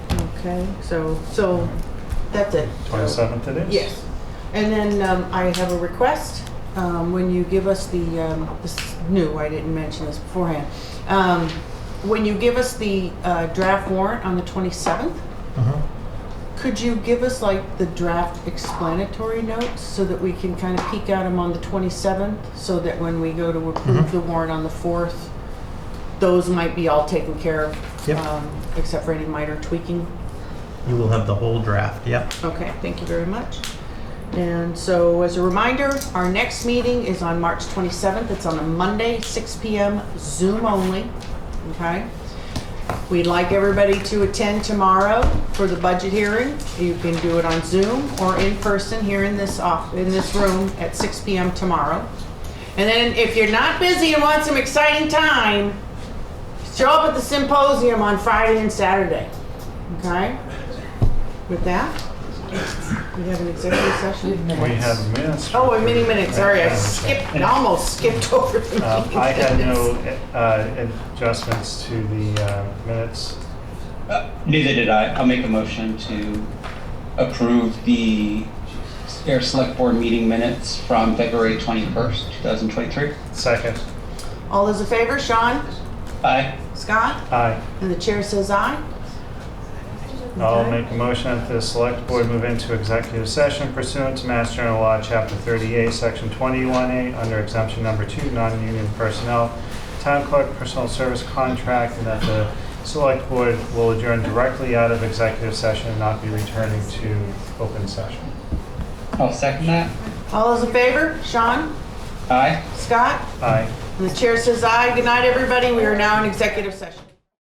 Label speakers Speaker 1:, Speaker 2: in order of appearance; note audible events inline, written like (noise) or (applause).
Speaker 1: Okay, so, so, that's it.
Speaker 2: Twenty-seventh it is?
Speaker 1: Yes. And then um, I have a request. Um, When you give us the, um, this is new, I didn't mention this beforehand. Um, When you give us the uh, draft warrant on the 27th,
Speaker 2: Mhm.
Speaker 1: could you give us like the draft explanatory notes so that we can kind of peek at them on the 27th? So that when we go to approve
Speaker 2: Mhm.
Speaker 1: the warrant on the 4th, those might be all taken care of?
Speaker 2: Yep.
Speaker 1: um, Except for any minor tweaking?
Speaker 2: You will have the whole draft, yep.
Speaker 1: Okay, thank you very much. And so as a reminder, our next meeting is on March 27th. It's on a Monday, 6 PM, Zoom only, okay? We'd like everybody to attend tomorrow for the budget hearing. You can do it on Zoom or in person here in this off, in this room at 6 PM tomorrow. And then if you're not busy and want some exciting time, show up at the symposium on Friday and Saturday, okay? With that, we have an executive session.
Speaker 2: We have minutes.
Speaker 1: Oh, and mini minutes, sorry, I skipped,
Speaker 2: (laughs)
Speaker 1: almost skipped over the
Speaker 2: Um,
Speaker 1: meeting.
Speaker 2: I had no
Speaker 1: minutes.
Speaker 2: uh, adjustments to the uh, minutes.
Speaker 3: Uh, Neither did I. I'll make a motion to approve the Air Select Board meeting minutes from February 21st, 2023.
Speaker 2: Second,
Speaker 1: All those in favor, Sean,
Speaker 3: Aye.
Speaker 1: Scott,
Speaker 2: aye.
Speaker 1: and the chair says aye.
Speaker 2: I'll
Speaker 1: Okay.
Speaker 2: make a motion that the select board move into executive session pursuant to Mass General Law, Chapter 38, Section 21A, under exemption number two, non-union personnel, town clerk personal service contract, and that the select board will adjourn directly out of executive session and not be returning to open session.
Speaker 3: I'll second that.
Speaker 1: All those in favor, Sean,
Speaker 3: Aye.
Speaker 1: Scott,
Speaker 2: Aye.
Speaker 1: and the chair says aye. Good night, everybody, we are now in executive session.